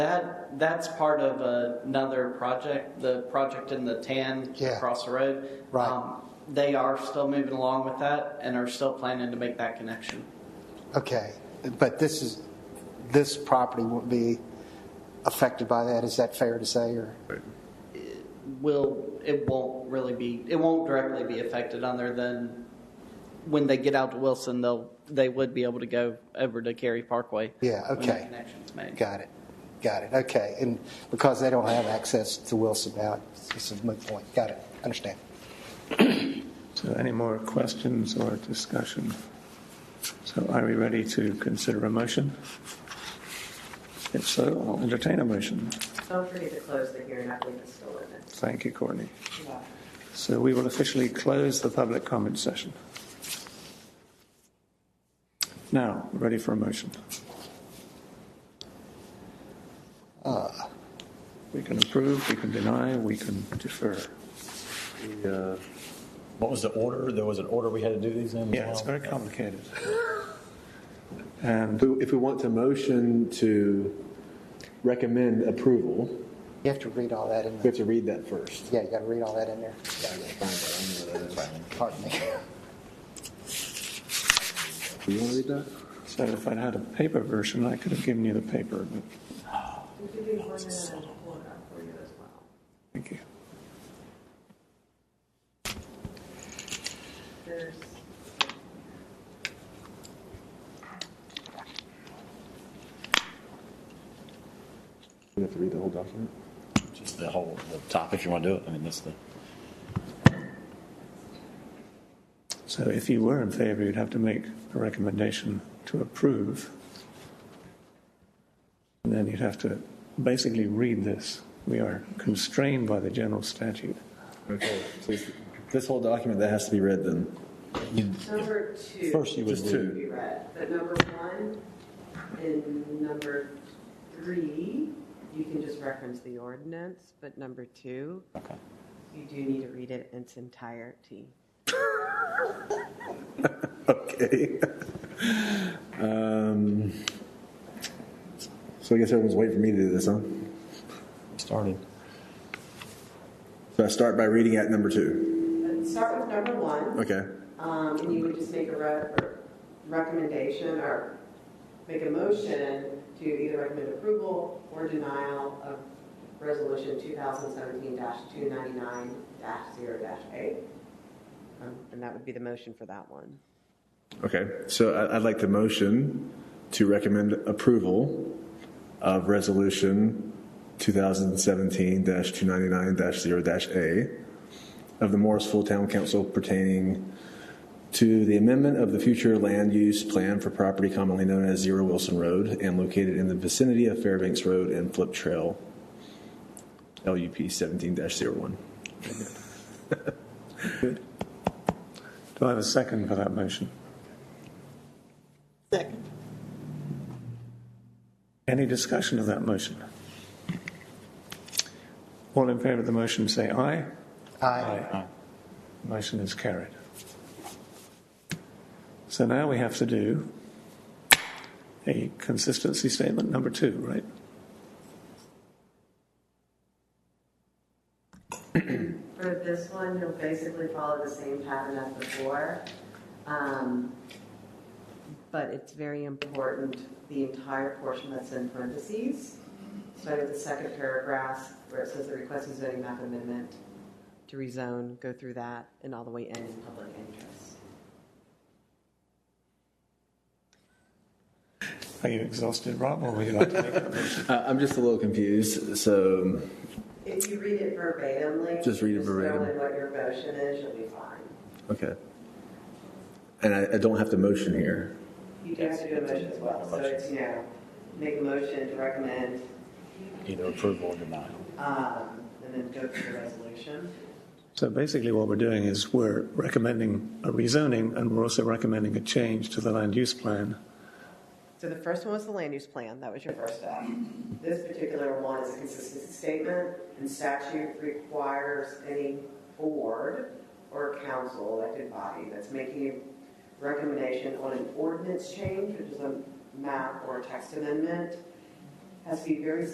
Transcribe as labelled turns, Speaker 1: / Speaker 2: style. Speaker 1: That that's part of another project, the project in the tan
Speaker 2: Yeah.
Speaker 1: across the road.
Speaker 2: Right.
Speaker 1: Um, they are still moving along with that and are still planning to make that connection.
Speaker 2: Okay, but this is, this property won't be affected by that, is that fair to say, or?
Speaker 1: Will it won't really be it won't directly be affected other than when they get out to Wilson they'll they would be able to go over to Cary Parkway.
Speaker 2: Yeah,
Speaker 1: when that
Speaker 2: okay.
Speaker 1: connection's made.
Speaker 2: Got it, got it, okay, and because they don't have access to Wilson now, this is my point, got it, understand.
Speaker 3: So any more questions or discussion? So are we ready to consider a motion? If so, I'll entertain a motion.
Speaker 4: Don't forget to close the hearing, I believe it's still in it.
Speaker 3: Thank you, Courtney.
Speaker 4: Yeah.
Speaker 3: So we will officially close the public comment session. Now, ready for a motion. Ah, We can approve, we can deny, we can defer.
Speaker 5: Uh, What was the order? There was an order we had to do these in? as
Speaker 3: Yeah, it's
Speaker 5: well?
Speaker 3: very complicated. And
Speaker 6: If we want to motion to recommend approval,
Speaker 2: You have to read all that in
Speaker 6: we
Speaker 2: there,
Speaker 6: have to read that first.
Speaker 2: yeah, you gotta read all that in there, pardon me.
Speaker 6: Do you want to read that?
Speaker 3: so if I'd had a paper version, I could have given you the paper, but
Speaker 4: We could do one minute and pull it up for you as well.
Speaker 3: thank you.
Speaker 4: There's,
Speaker 6: We have to read the whole document?
Speaker 5: Just the whole, the topic, you want to do it? I mean, that's the,
Speaker 3: So if you were in favor, you'd have to make a recommendation to approve. And then you'd have to basically read this. We are constrained by the general statute.
Speaker 6: Okay. So it's- Oh, This whole document, that has to be read then?
Speaker 4: number two.
Speaker 5: first you would
Speaker 6: Just
Speaker 5: read.
Speaker 6: two.
Speaker 4: Be read, but number one and number three, you can just reference the ordinance, but number two,
Speaker 5: Okay.
Speaker 4: you do need to read it in its entirety.
Speaker 6: Okay. Um, So I guess everyone's waiting for me to do this, huh?
Speaker 5: started.
Speaker 6: So I start by reading at number two.
Speaker 4: But Start with number one.
Speaker 6: Okay.
Speaker 4: Um, and you would just make a re- or recommendation or make a motion to either recommend approval or denial of resolution 2017-299-0-8. Um, And that would be the motion for that one.
Speaker 6: Okay. So I- I'd like the motion to recommend approval of resolution 2017-299-0-A of the Morrisville Town Council pertaining to the amendment of the future land use plan for property commonly known as Zero Wilson Road and located in the vicinity of Fairbanks Road and Flip Trail, LUP 17-01.
Speaker 3: Do I have a second for that motion?
Speaker 7: Second.
Speaker 3: Any discussion of that motion? All in favor of the motion, say aye.
Speaker 2: Aye.
Speaker 3: Motion is carried. So now we have to do a consistency statement number two, right?
Speaker 4: For this one, you'll basically follow the same pattern as before. Um, But it's very important, the entire portion that's in parentheses, starting with the second paragraph where it says the request is zoning map amendment to rezone, go through that and all the way in in public interest.
Speaker 3: Are you exhausted, Rob, or would you like to make that motion?
Speaker 6: Uh, I'm just a little confused. So
Speaker 4: If you read it verbatimly.
Speaker 6: Just read it
Speaker 4: Just
Speaker 6: verbatim.
Speaker 4: throw in what your motion is, you'll be fine.
Speaker 6: Okay. And I, I don't have to motion here.
Speaker 4: You do have to do a motion as well, so it's, you know, make a motion to recommend
Speaker 5: Either approval or denial.
Speaker 4: Um, And then go to the resolution.
Speaker 3: So basically, what we're doing is we're recommending a rezoning, and we're also recommending a change to the land use plan.
Speaker 4: So the first one was the land use plan, that was your first step. This particular one is a consistency statement, and statute requires any board or council elected body that's making a recommendation on an ordinance change, which is a map or a text amendment, has to be very